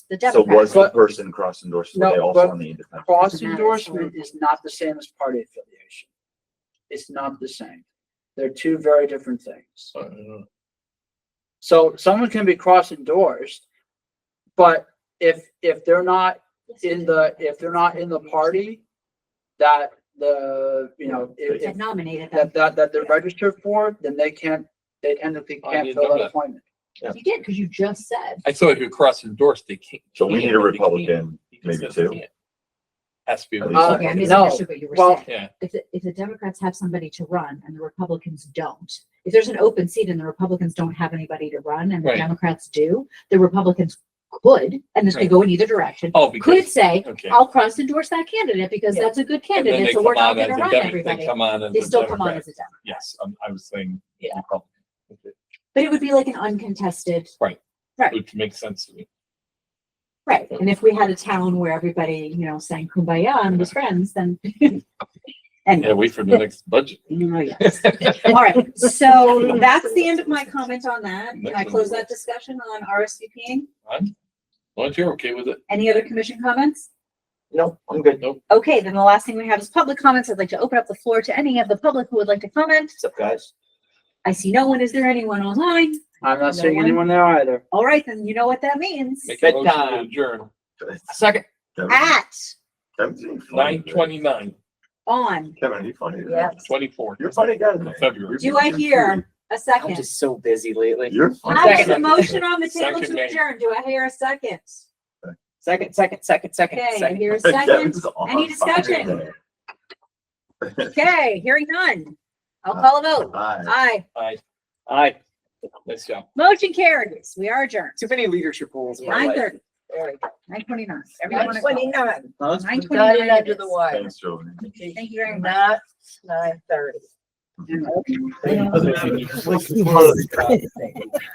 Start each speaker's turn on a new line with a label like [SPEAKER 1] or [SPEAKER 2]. [SPEAKER 1] the
[SPEAKER 2] So was
[SPEAKER 1] Democrats.
[SPEAKER 2] the
[SPEAKER 3] But-
[SPEAKER 2] person cross endorsed, were
[SPEAKER 3] No,
[SPEAKER 2] they also
[SPEAKER 3] but-
[SPEAKER 2] on the independent?
[SPEAKER 3] Cross
[SPEAKER 1] Doesn't matter,
[SPEAKER 3] endorsement
[SPEAKER 1] so-
[SPEAKER 3] is not the same as party affiliation. It's not the same. They're two very different things.
[SPEAKER 4] uh,
[SPEAKER 3] So someone can be cross endorsed, but if, if they're not in the, if they're not in the party that the, you know, if,
[SPEAKER 1] That
[SPEAKER 3] if,
[SPEAKER 1] nominated them.
[SPEAKER 3] that, that, that they're registered for, then they can't, they technically
[SPEAKER 4] Oh,
[SPEAKER 3] can't
[SPEAKER 4] you
[SPEAKER 3] fill
[SPEAKER 4] know
[SPEAKER 3] that
[SPEAKER 4] that.
[SPEAKER 3] appointed.
[SPEAKER 1] You did, because you just said.
[SPEAKER 4] I thought you cross endorsed, they can't.
[SPEAKER 2] So we need a Republican,
[SPEAKER 4] Because
[SPEAKER 2] maybe
[SPEAKER 4] they
[SPEAKER 2] two.
[SPEAKER 4] can't. Has to be. a
[SPEAKER 2] At
[SPEAKER 1] Okay,
[SPEAKER 2] least
[SPEAKER 3] Uh,
[SPEAKER 1] I
[SPEAKER 4] Republican.
[SPEAKER 1] misunderstood what you were
[SPEAKER 3] well-
[SPEAKER 1] saying.
[SPEAKER 4] Yeah,
[SPEAKER 1] If, the- if the Democrats have somebody to run and the Republicans don't, if there's an open seat and the Republicans don't have anybody to run and the
[SPEAKER 4] Right.
[SPEAKER 1] Democrats do, the Republicans could, and this could
[SPEAKER 4] Right.
[SPEAKER 1] go in either direction,
[SPEAKER 4] oh,
[SPEAKER 1] could
[SPEAKER 4] because.
[SPEAKER 1] say,
[SPEAKER 4] Okay.
[SPEAKER 1] I'll cross endorse that candidate because
[SPEAKER 3] Yeah.
[SPEAKER 1] that's a good
[SPEAKER 4] and then
[SPEAKER 1] candidate,
[SPEAKER 4] they
[SPEAKER 1] so we're
[SPEAKER 4] come
[SPEAKER 1] not
[SPEAKER 4] on as
[SPEAKER 1] gonna
[SPEAKER 4] a
[SPEAKER 1] run
[SPEAKER 4] Dem-
[SPEAKER 1] everybody.
[SPEAKER 4] They come on as
[SPEAKER 1] They
[SPEAKER 4] a
[SPEAKER 1] still come on
[SPEAKER 4] Democrat.
[SPEAKER 1] as a Democrat.
[SPEAKER 4] Yes, I'm- I was saying.
[SPEAKER 1] Yeah.
[SPEAKER 4] Republican. Okay.
[SPEAKER 1] But it would be like an uncontested, Right.
[SPEAKER 4] Which makes sense to me.
[SPEAKER 1] right? And if we had a town where everybody, you know, sang kumbaya and was friends, then.
[SPEAKER 4] Yeah,
[SPEAKER 1] Anyway,
[SPEAKER 4] wait for the next budget.
[SPEAKER 1] oh, yes. All right, so that's the end of my comment on that. Can I close that discussion on RSVPing?
[SPEAKER 4] I'm, well, if you're okay with it,
[SPEAKER 1] Any other commission comments?
[SPEAKER 2] No, I'm good.
[SPEAKER 4] nope.
[SPEAKER 1] Okay, then the last thing we have is public comments. I'd like to open up the floor to any of the public who would like to comment.
[SPEAKER 2] What's up, guys?
[SPEAKER 1] I see no one. Is there anyone online?
[SPEAKER 3] I'm not
[SPEAKER 1] No
[SPEAKER 3] seeing
[SPEAKER 1] one?
[SPEAKER 3] anyone there either.
[SPEAKER 1] All right, then you know what that means.
[SPEAKER 4] Make a motion to
[SPEAKER 5] Bedtime.
[SPEAKER 4] adjourn.
[SPEAKER 5] Second.
[SPEAKER 2] Kevin-
[SPEAKER 1] At,
[SPEAKER 2] Kevin's being funny
[SPEAKER 4] Nine
[SPEAKER 2] today.
[SPEAKER 4] twenty-nine,
[SPEAKER 1] on,
[SPEAKER 2] Kevin, are you funny? today?
[SPEAKER 1] Yes.
[SPEAKER 4] twenty-four.
[SPEAKER 2] You're a funny guy. today.
[SPEAKER 4] February.
[SPEAKER 1] do I hear a
[SPEAKER 5] I'm
[SPEAKER 1] second?
[SPEAKER 5] just so busy lately.
[SPEAKER 2] You're
[SPEAKER 1] I have
[SPEAKER 2] funny.
[SPEAKER 1] a motion on the table
[SPEAKER 4] Second,
[SPEAKER 1] to
[SPEAKER 4] mate.
[SPEAKER 1] adjourn. Do I hear a second?
[SPEAKER 5] Second, second, second, second,
[SPEAKER 1] Okay, I
[SPEAKER 5] second.
[SPEAKER 1] hear a second.
[SPEAKER 2] Kevin's on
[SPEAKER 1] Any
[SPEAKER 2] fire
[SPEAKER 1] discussion?
[SPEAKER 2] today.
[SPEAKER 1] Okay, hearing none. I'll call a vote.
[SPEAKER 2] Hi.
[SPEAKER 1] Aye.
[SPEAKER 4] Aye,
[SPEAKER 5] Aye.
[SPEAKER 4] nice job.
[SPEAKER 1] Motion carries. We are adjourned.
[SPEAKER 5] Too many leadership roles. in my
[SPEAKER 1] Nine
[SPEAKER 5] life.
[SPEAKER 1] thirty. There we go. Nine twenty-nine. Everyone. is gone.
[SPEAKER 5] Huh?
[SPEAKER 1] Nine
[SPEAKER 6] Got it
[SPEAKER 1] twenty-nine.
[SPEAKER 6] under the wire.
[SPEAKER 2] Thanks, Jovan.
[SPEAKER 1] Thank you very much.
[SPEAKER 6] Not nine thirty.
[SPEAKER 2] Thank you.